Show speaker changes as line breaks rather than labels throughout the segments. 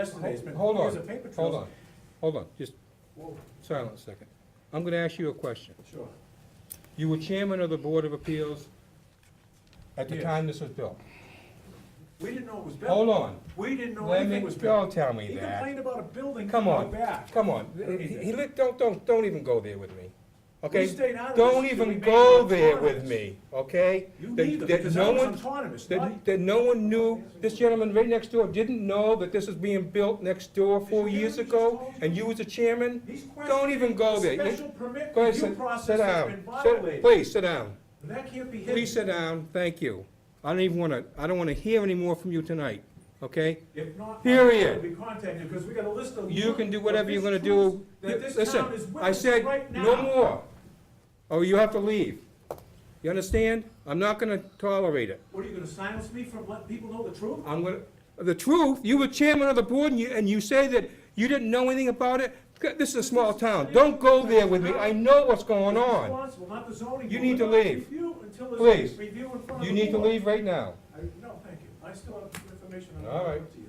Yesterday's been,
Hold
here's a
on,
paper trail.
hold on, hold on, just
Whoa,
silence a second. I'm gonna ask you a question.
Sure,
You were chairman of the Board of Appeals at the
Yes.
time this was built.
we didn't know it was built.
Hold on.
We didn't know
Let
anything
me,
was built.
don't tell
He
me that.
complained about a building
Come
coming
on,
back.
come on. He, he lit- don't, don't, don't even go there with me, okay?
stayed out of
Don't
this until we
even
made
go
it
there with
autonomous.
me, okay?
You
That-
neither,
that
because that
no
was
one-
autonomous, not
That, that no one knew, this gentleman right next door didn't know that this was being built next door four
Did you
years
hear what he just
ago,
told you?
and you was the chairman?
He's
Don't
questioning
even go there.
the
You-
special permit
Go ahead,
review
sit,
process
sit
that's been
down. Sit-
violated.
Please, sit down.
And that can't be hidden.
Please sit down, thank you. I don't even wanna, I don't wanna hear any more from you tonight, okay?
If not,
Period.
we contacted, because we got a list of.
You can do whatever you're gonna
official
do.
truths That this
Listen,
town is
I
witnessing
said,
right now.
no more, or you have to leave. You understand? I'm not gonna tolerate it.
What, are you gonna silence me from letting people know the truth?
I'm gonna, the truth, you were chairman of the board and you, and you say that you didn't know anything about it? This is a small town, don't go there with me, I know what's going
It's
on.
responsible, not the zoning
You
board.
need to
Not
leave.
review until there's
Please.
Review in front of the
You need to
board.
leave right now.
I- No, thank you. I still have information I'm
All
going
right.
to give to you.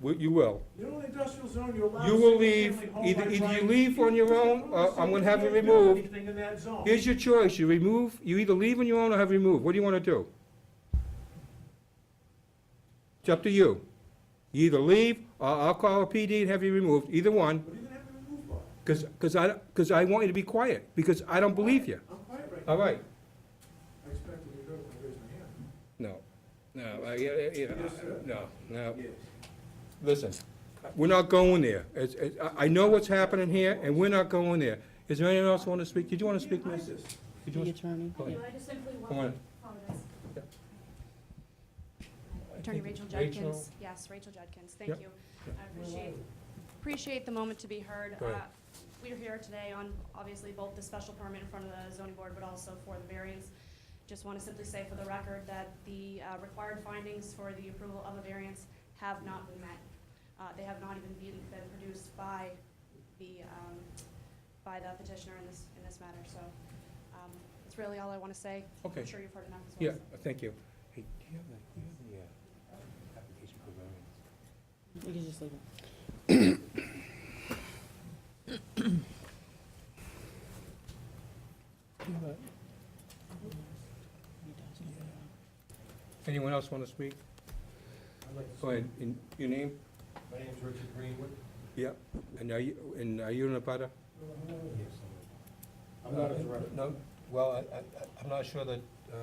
W- You will.
You know, in the industrial zone, you're allowed.
You will
single-family
leave.
home
Either-
by
either you
right.
leave on your own,
There's
or
no
I'm gonna have you
single-family building
removed.
Anything in that zone.
Here's your choice, you remove, you either leave on your own or have removed, what do you wanna do? It's up to you. You either leave, or I'll call a PD and have you removed, either one,
What are you gonna have to remove by?
cause, 'cause I, cause I want you to be quiet, because I don't believe you.
I'm quiet right now.
All right,
I expected you to go when I raised my
no, no, I, yeah, yeah,
Yes, sir.
no, no,
hand. Yes.
listen, we're not going there. It's, it's, I, I know what's happening here, and we're not going there. Is there anyone else wanna speak? Did you wanna speak, miss?
Isis.
Did you
The
wanna-
attorney.
Go ahead.
I just simply
Come
want
on.
to apologize.
I
Attorney
think
Rachel
Rachel-
Judkins, yes, Rachel Judkins, thank
Yep.
you.
Yep.
I appreciate, appreciate the moment to be heard.
Go ahead.
Uh, We're here today on, obviously, both the special permit in front of the zoning board, but also for the variance. Just want to simply say for the record that the uh, required findings for the approval of the variance have not been met. Uh, They have not even been, been produced by the, um, by the petitioner in this, in this matter, so um, that's really all I want to say.
Okay.
I'm sure you've heard enough as well.
Yeah, thank you. Hey, do you have the, do you have the, uh, application for variance?
You can just leave it.
Anyone else want to speak?
I'd like to
Go ahead, and your name?
say- My name's Richard Greenwood.
Yeah, and are you, and are you in a butter?
Yes, I'm I'm not a director.
No, well, I, I, I'm not sure that, uh,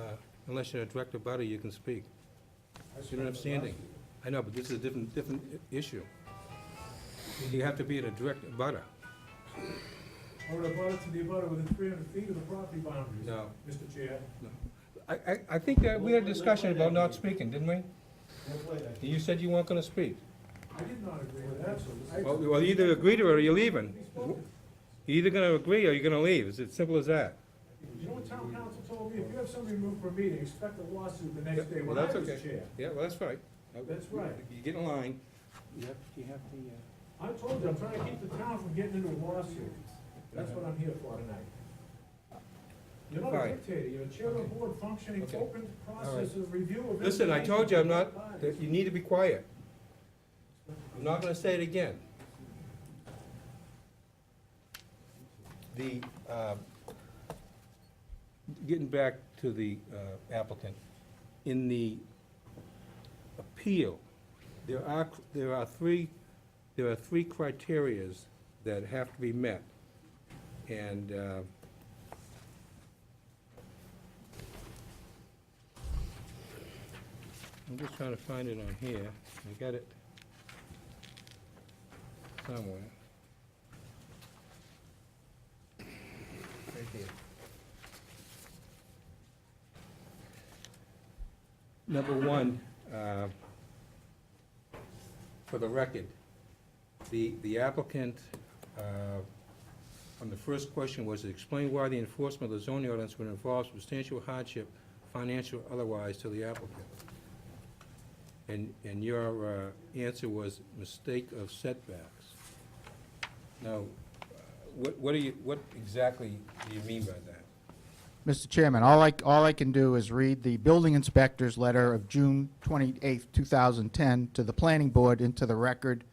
unless you're a direct butter, you can speak. You don't have standing. I know, but this is a different, different i- issue. You have to be in a direct butter.
I would have bought it to the abutter within three hundred feet of the property boundaries.
No.
Mr. Chair.
I, I, I think that we had a discussion about not speaking, didn't we?
That's why I-
You said you weren't gonna speak.
I did not agree with that. I-
Well, well, either agree to it or you're leaving.
He spoke.
You're either gonna agree or you're gonna leave, it's as simple as that.
You know what town council told me? If you have somebody removed from a meeting, expect a lawsuit the next
Yeah,
day
well,
when I
that's
was
okay.
chair.
Yeah, well, that's right.
That's right.
You get in line. You have, you have the, uh?
I told you, I'm trying to keep the town from getting into a lawsuit. That's what I'm here for tonight. You're not a
Fine.
dictator, you're a chair of the board functioning,
Okay.
open process of review of.
Listen, I told you I'm not, that
information.
you need to be quiet. I'm not gonna say it again. The, um, getting back to the uh, applicant, in the appeal, there are, there are three, there are three criterias that have to be met. And, uh, I'm just trying to find it on here. I got it somewhere. Right here. Number one, uh, for the record, the the applicant, uh, on the first question was, explain why the enforcement of the zoning ordinance would involve substantial hardship, financial or otherwise, to the applicant. And, and your uh, answer was mistake of setbacks. Now, uh, what, what do you, what exactly do you mean by that?
Mr. Chairman, all I, all I can do is read the building inspector's letter of June 28, 2010, to the planning board into the record